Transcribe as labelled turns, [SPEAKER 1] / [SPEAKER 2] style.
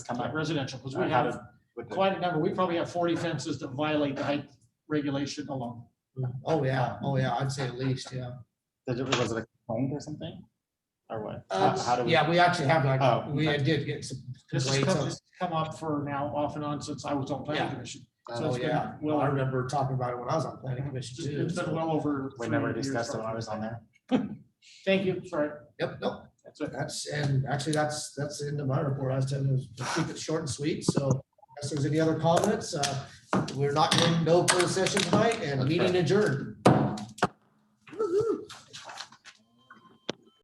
[SPEAKER 1] I'm not residential, because we
[SPEAKER 2] Uh, how
[SPEAKER 1] have
[SPEAKER 2] did- with the-
[SPEAKER 1] quite a number. We probably have forty fences that violate the height regulation alone.
[SPEAKER 3] Oh, yeah, oh, yeah, I'd say at least, yeah.
[SPEAKER 2] did it- Was it a complaint or something? Or what?
[SPEAKER 3] Uh,
[SPEAKER 2] How- how do we-
[SPEAKER 3] Yeah, we actually have
[SPEAKER 2] Oh,
[SPEAKER 3] like, we
[SPEAKER 2] okay.
[SPEAKER 3] did get some
[SPEAKER 1] This has
[SPEAKER 3] complaints
[SPEAKER 1] come,
[SPEAKER 3] on
[SPEAKER 1] this has come up for now off and on since I was on planning
[SPEAKER 3] Yeah.
[SPEAKER 1] commission. So
[SPEAKER 3] Oh,
[SPEAKER 1] it's
[SPEAKER 3] yeah,
[SPEAKER 1] been
[SPEAKER 3] well, I
[SPEAKER 1] well,
[SPEAKER 3] remember talking about it when I was on planning commission too.
[SPEAKER 1] it's been well over.
[SPEAKER 2] We never
[SPEAKER 1] three years
[SPEAKER 2] discussed it
[SPEAKER 1] from
[SPEAKER 2] when I
[SPEAKER 1] now.
[SPEAKER 2] was on there.
[SPEAKER 1] Thank you, sorry.
[SPEAKER 3] Yep, nope,
[SPEAKER 1] That's it.
[SPEAKER 3] that's, and actually, that's, that's the end of my report, I was telling you, just keep it short and sweet, so. If there's any other comments, uh, we're not going to no closed session tonight and meeting adjourned.